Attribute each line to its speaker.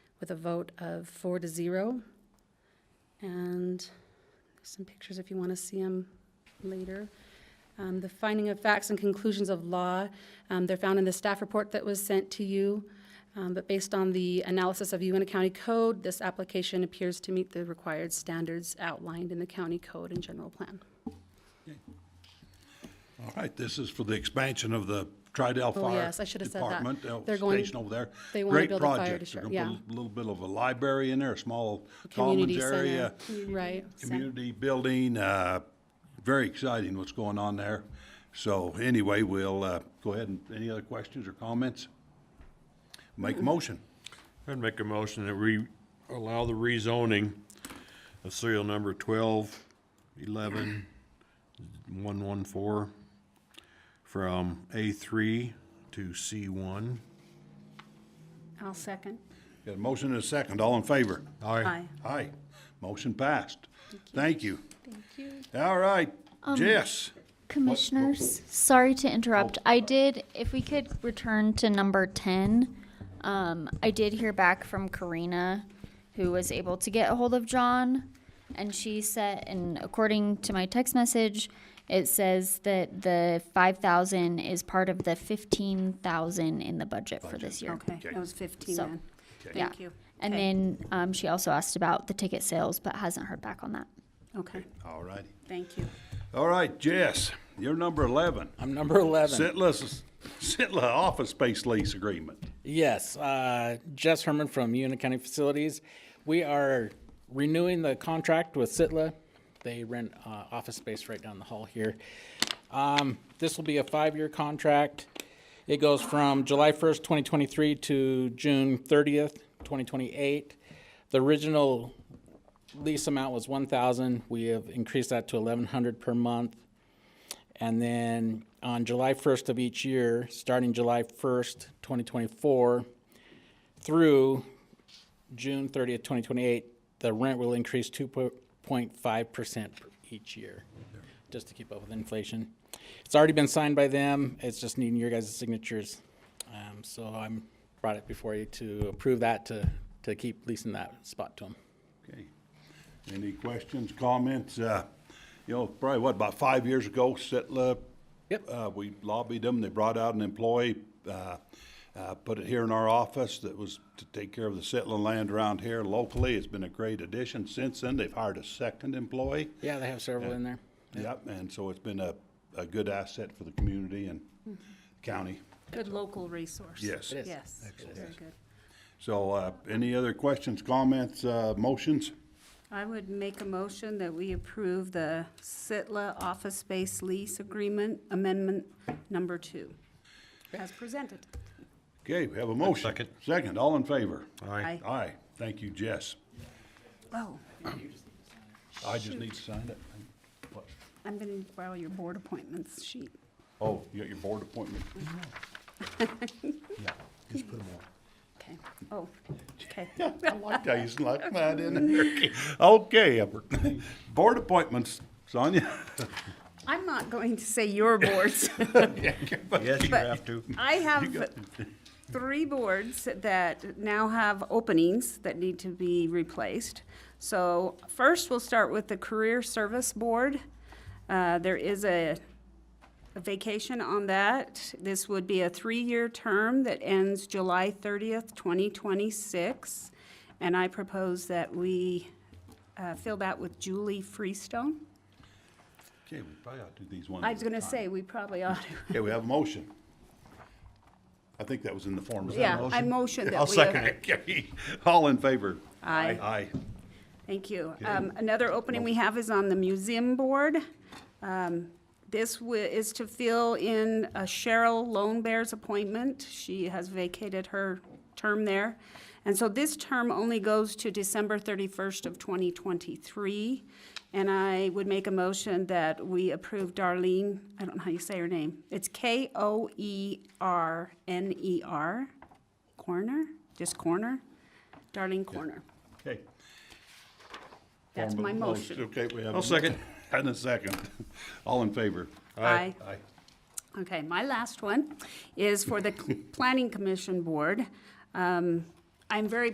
Speaker 1: with a vote of four to zero. And there's some pictures if you want to see them later. Um, The finding of facts and conclusions of law, um, they're found in the staff report that was sent to you. Um, But based on the analysis of UNT County Code, this application appears to meet the required standards outlined in the county code and general plan.
Speaker 2: All right, this is for the expansion of the Tridell
Speaker 1: Oh,
Speaker 2: Fire
Speaker 1: yes, I should have said that.
Speaker 2: Department, uh,
Speaker 1: They're going-
Speaker 2: station over there.
Speaker 1: they wanna build a fire district,
Speaker 2: Great project. They're gonna put a little bit of a library in there, a small
Speaker 1: Community
Speaker 2: Commons
Speaker 1: center,
Speaker 2: area,
Speaker 1: right.
Speaker 2: community building, uh, very exciting what's going on there. So anyway, we'll, uh, go ahead and, any other questions or comments? Make a motion.
Speaker 3: I'd make a motion that we allow the rezoning of serial number twelve, eleven, one, one, four from Um, A three to C one.
Speaker 1: I'll second.
Speaker 2: Got a motion and a second, all in favor?
Speaker 1: Aye.
Speaker 2: Aye, motion passed. Thank you.
Speaker 1: Thank you.
Speaker 2: All right, Jess.
Speaker 4: Commissioners, sorry to interrupt. I did, if we could return to number 10, um, I did hear back from Karina, who was able to get a hold of John, and she said, and according to my text message, it says that the 5,000 is part of the 15,000 in the budget for this year.
Speaker 5: Okay,
Speaker 2: Okay.
Speaker 5: that was 15
Speaker 4: So-
Speaker 5: then.
Speaker 4: Yeah.
Speaker 5: Thank you.
Speaker 4: And
Speaker 5: Okay.
Speaker 4: then um, she also asked about the ticket sales, but hasn't heard back on that.
Speaker 5: Okay,
Speaker 2: All righty.
Speaker 5: thank you.
Speaker 2: All right, Jess, you're number 11.
Speaker 6: I'm number 11.
Speaker 2: Sitla's, Sitla office space lease agreement.
Speaker 6: Yes, uh, Jess Herman from Una County Facilities. We are renewing the contract with Sitla. They rent uh, office space right down the hall here. Um, This will be a five-year contract. It goes from July 1st, 2023 to June 30th, 2028. The original lease amount was 1,000. We have increased that to 1,100 per month. And then on July 1st of each year, starting July 1st, 2024, through June 30th, 2028, the rent will increase 2.5% each year, just to keep up with inflation. It's already been signed by them, it's just needing your guys' signatures. Um, So I'm, brought it before you to approve that, to, to keep leasing that spot to them.
Speaker 2: Okay. Any questions, comments? Uh, You know, probably what, about five years ago, Sitla?
Speaker 6: Yep.
Speaker 2: uh, We lobbied them, they brought out an employee, uh, uh, put it here in our office that was to take care of the Sitla land around here locally. It's been a great addition since then. They've hired a second employee.
Speaker 6: Yeah, they have several in there.
Speaker 2: Yep, and so it's been a, a good asset for the community and county.
Speaker 5: Good local resource.
Speaker 2: Yes. It
Speaker 6: is.
Speaker 5: Yes, very good.
Speaker 2: So, uh, any other questions, comments, uh, motions?
Speaker 5: I would make a motion that we approve the Sitla office space lease agreement amendment number two, as presented.
Speaker 2: Okay, we have a motion.
Speaker 3: Second.
Speaker 2: Second, all in favor?
Speaker 3: Aye.
Speaker 5: Aye.
Speaker 2: Aye, thank you, Jess.
Speaker 5: Oh,
Speaker 2: I just need to sign it. What?
Speaker 5: I'm going to borrow your board appointments sheet.
Speaker 2: Oh, you got your board appointment.
Speaker 5: Okay, oh, okay.
Speaker 2: I like how you snuck that in there. Okay, Albert. board appointments, Sonia.
Speaker 5: I'm not going to say your boards.
Speaker 3: Yes, you
Speaker 5: But-
Speaker 3: have to.
Speaker 5: I have three boards that now have openings that need to be replaced. So first, we'll start with the Career Service Board. Uh, There is a a vacation on that. This would be a three-year term that ends July 30th, 2026. And I propose that we uh, fill that with Julie Freestone.
Speaker 2: Okay, we probably ought to do these one
Speaker 5: I
Speaker 2: at
Speaker 5: was
Speaker 2: a
Speaker 5: going to
Speaker 2: time.
Speaker 5: say, we probably ought to.
Speaker 2: Okay, we have a motion. I think that was in the form of.
Speaker 5: Yeah, I motion that we. uh,
Speaker 2: I'll second it. Okay, All in favor?
Speaker 5: Aye.
Speaker 2: Aye.
Speaker 5: Thank you. Um, Another opening we have is on the museum board. Um, This wi- is to fill in uh, Cheryl Lone Bear's appointment. She has vacated her term there. And so this term only goes to December 31st of 2023. And I would make a motion that we approve Darlene, I don't know how you say her name. It's E K-O-E-R-N-E-R, E Corner, just Corner, Darlene Corner.
Speaker 2: Okay.
Speaker 5: That's
Speaker 2: Form
Speaker 5: my
Speaker 2: of the
Speaker 5: motion.
Speaker 2: Okay, we have.
Speaker 3: I'll
Speaker 2: a
Speaker 3: second.
Speaker 2: motion And a second. All in favor?
Speaker 5: Aye.
Speaker 2: Aye.
Speaker 5: Okay, my last one is for the Planning Commission Board. Um, I'm very